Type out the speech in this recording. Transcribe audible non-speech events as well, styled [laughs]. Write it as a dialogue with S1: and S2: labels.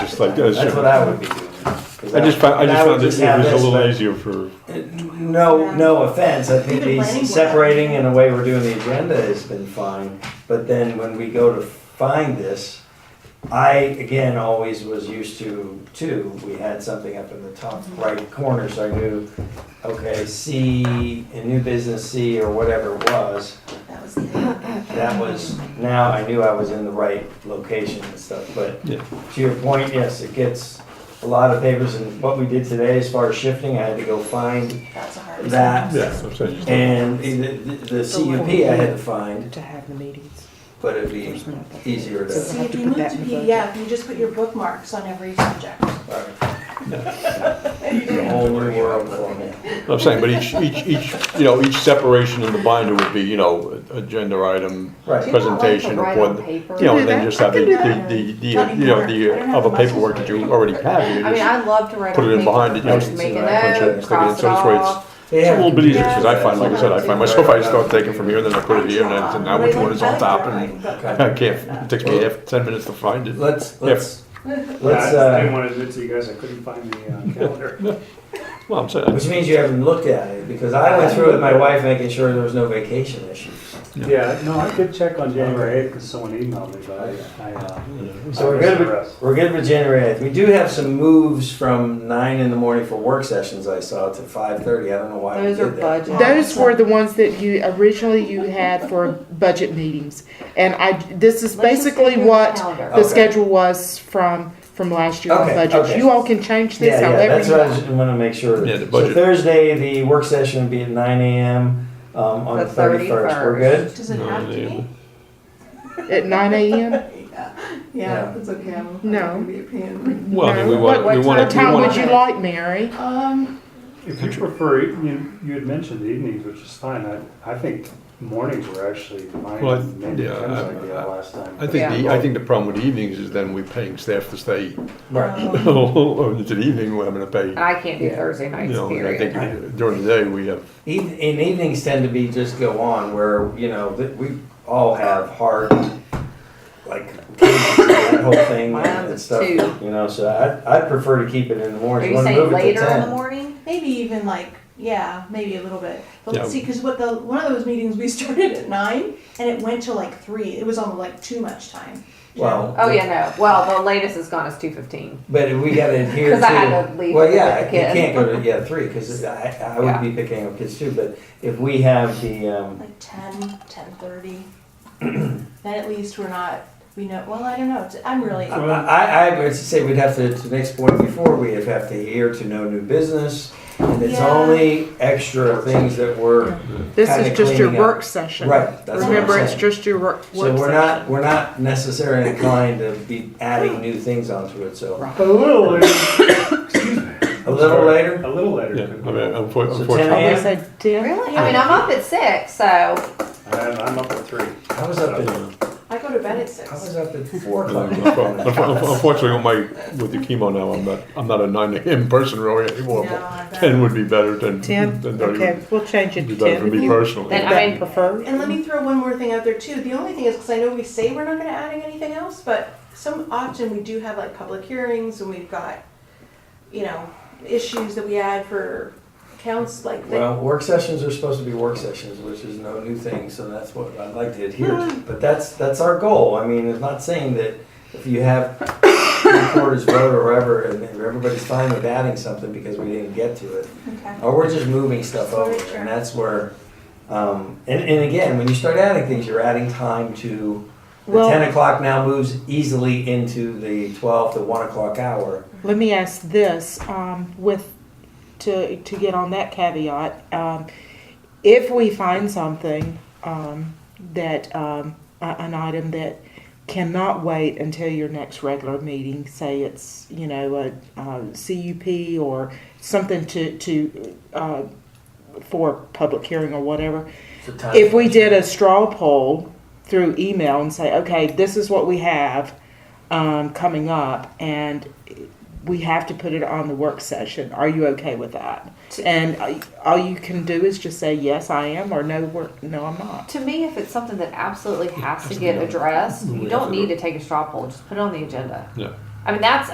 S1: just like that.
S2: That's what I would be doing. 'Cause
S1: I just found, I
S2: and
S1: just
S2: would
S1: found it, it
S2: have
S1: was a
S2: this,
S1: little
S2: but
S1: easier for,
S2: No, no offense, I think
S3: The planning board.
S2: these separating and the way we're doing the agenda has been fine, but then when we go to find this, I, again, always was used to, too, we had something up in the top right corner, so I knew, okay, C, in new business C or whatever it was,
S3: That was the.
S2: that was, now I knew I was in the right location and stuff, but
S1: Yeah.
S2: to your point, yes, it gets a lot of papers, and what we did today as far as shifting, I had to go find,
S3: That's a hard.
S2: That-
S1: yeah, that's what I'm saying. just-
S2: and the- the the CUP I had to find,
S4: to have the meetings.
S2: but it'd be easier to,
S3: See, if you move to P, yeah, if you just put your bookmarks on every subject.
S2: alright. It's a whole new world for me.
S1: I'm saying, but each, each, each, you know, each separation in the binder would be, you know, agenda item,
S2: Right.
S1: presentation,
S5: Right
S1: report,
S5: on paper.
S1: you know,
S4: Do
S1: and then
S4: that.
S1: just have the, the, the, the, you know, the uh, other paperwork that you already have. you
S5: I mean,
S1: just-
S5: I'd love to write.
S1: put it
S5: on
S1: in
S5: paper,
S1: behind it, you
S2: know,
S5: Just make a
S2: so I punch
S1: it,
S5: note,
S1: stick it in,
S5: cross it
S1: so it's where it's-
S5: off.
S1: It's a little bit easier,
S5: Yeah.
S1: because I find, like I said, I find myself, I start taking from here, and then I put it here, and I think, now which one is on top, and I can't, it takes me half, ten minutes to find it.
S2: Let's, let's, let's,
S6: Yeah, I I didn't
S2: uh,
S6: want to admit to you guys, I couldn't find
S2: [laughs]
S6: the uh, calendar.
S1: Well, I'm saying,
S2: which means you haven't looked at it, because I went through it with my wife, making sure there was no vacation issues.
S6: Yeah, no, I did check on January 8th because someone emailed me, but I, I, uh,
S2: So we're good with, we're good with January 8th. We do have some moves from nine in the morning for work sessions I saw to 5:30. I don't know why we
S5: Those are
S2: did that.
S5: budget.
S4: Those were the ones that you, originally you had for budget meetings. And I, this is
S5: Let's just
S4: basically
S5: figure it
S4: what
S5: out later.
S4: the
S2: Okay.
S4: schedule was from, from last year on
S2: Okay,
S4: budgets.
S2: okay.
S4: You all can change this
S2: Yeah, yeah,
S4: however
S2: that's
S4: you
S2: what I
S4: want.
S2: just want to make sure.
S1: Yeah, the
S2: So
S1: budget.
S2: Thursday, the work session would be at nine AM um, on the
S5: The
S2: 31st. We're good?
S3: Does it have to be?
S2: [laughs]
S4: At nine AM?
S2: Yeah.
S3: it's okay. I'm-
S4: No.
S3: I'm gonna be a pain.
S1: well, I mean, we
S4: No.
S1: want, we want,
S5: What
S4: What
S1: we
S4: time would
S1: want,
S4: you like, Mary?
S3: Um,
S6: if you prefer, you, you had mentioned evenings, which is fine. I, I think mornings were actually mine,
S1: Well, I-
S6: maybe
S1: yeah,
S6: Kim's
S1: I-
S6: idea last time.
S1: I think, the I think the problem with evenings is then we're paying staff to stay, [laughs]
S2: Right.
S1: it's an evening, where I'm gonna pay,
S5: And I can't do Thursday
S1: you
S5: nights,
S1: know, and I
S5: period.
S1: think during the day, we have,
S2: Eve- And evenings tend to be just go on where, you know, that we all have hard, like, that whole thing and
S5: [coughs] Mine's
S2: stuff.
S5: two.
S2: You know, so I, I'd prefer to keep it in the
S5: Are
S2: morning.
S5: you
S2: Wanna
S5: saying
S2: move it to
S5: later in the
S2: 10.
S5: morning?
S3: maybe even like, yeah, maybe a little bit.
S1: Yeah.
S3: But see, because what the, one of those meetings, we [laughs] started at nine and it went to like three. It was on like too much time. you know?
S2: Well.
S5: Oh, yeah, no. Well, the latest is gone is two fifteen.
S2: But we gotta adhere to.
S5: [laughs] 'Cause I had to leave
S2: Well,
S5: with
S2: yeah,
S5: the
S2: you
S5: kid.
S2: can't go to, yeah, three, because I, I would
S5: Yeah.
S2: be picking up kids too, but if we have the, um,
S3: Like ten, ten thirty. Then at least we're not, we know, well, I don't know. It's- I'm really,
S2: I, I, I would say we'd have to, to the next point before, we'd have to adhere to no new business. And it's
S3: Yeah.
S2: only extra things that were,
S4: This
S2: Kinda
S4: is just your
S2: cleaning up.
S4: work session.
S2: right, that's what I'm
S4: Remember, it's
S2: saying.
S4: just your work,
S2: So
S4: work
S2: we're
S4: session.
S2: not, we're not necessarily inclined to be adding new things onto it, so.
S4: Right.
S6: But a little later, [coughs] excuse me.
S2: A little later,
S6: A little later.
S1: yeah, I
S6: could be.
S1: mean, unfor-
S2: So
S1: unfortunately.
S4: I'm
S2: 10
S4: gonna say ten.
S5: Really? I mean, I'm up at six, so
S1: uh,
S6: I'm, I'm up at three.
S2: I was up at,
S3: I go to bed at
S2: I
S3: six.
S2: was up at four
S1: No,
S2: o'clock.
S1: no problem. [laughs] Unfor- Unfortunately, on my, with the chemo now, I'm not, I'm not a nine AM person really anymore.
S3: No, I
S1: but
S3: bet.
S1: Ten would be better than,
S4: Ten?
S1: than thirty.
S4: Okay, we'll change it
S1: It'd be
S4: to
S1: better for
S4: ten.
S1: me
S4: If
S1: personally.
S5: Then I
S4: that
S5: mean-
S4: prefer.
S3: And let me throw one more thing out there too. The only thing is, because I know we say we're not going to adding anything else, but some often we do have like public hearings and we've got, you know, issues that we add for counts like that.
S2: Well, work sessions are supposed to be work sessions, which is no new thing, so that's what I'd like to adhere to. But that's, that's our goal. I mean, it's not saying that if you have reporters vote or whatever, and then everybody's fine with adding something because we didn't get to it.
S3: Okay.
S2: Or we're just moving stuff over, and that's where, um, and, and again, when you start adding things, you're adding time to, the
S4: Well-
S2: ten o'clock now moves easily into the twelve to one o'clock hour.
S4: Let me ask this, um, with, to, to get on that caveat, um, if we find something, um, that, um, a- an item that cannot wait until your next regular meeting, say it's, you know, a, uh CUP or something to, to, uh, for public hearing or whatever,
S2: for time.
S4: if we did a straw poll through email and say, okay, this is what we have um, coming up, and we have to put it on the work session. Are you okay with that? And uh, all you can do is just say yes, I am, or no, we're, no, I'm not.
S5: to me, if it's something that absolutely has to get addressed, you don't need to take a straw poll. Just put it on the agenda.
S1: Yeah.
S5: I mean, that's,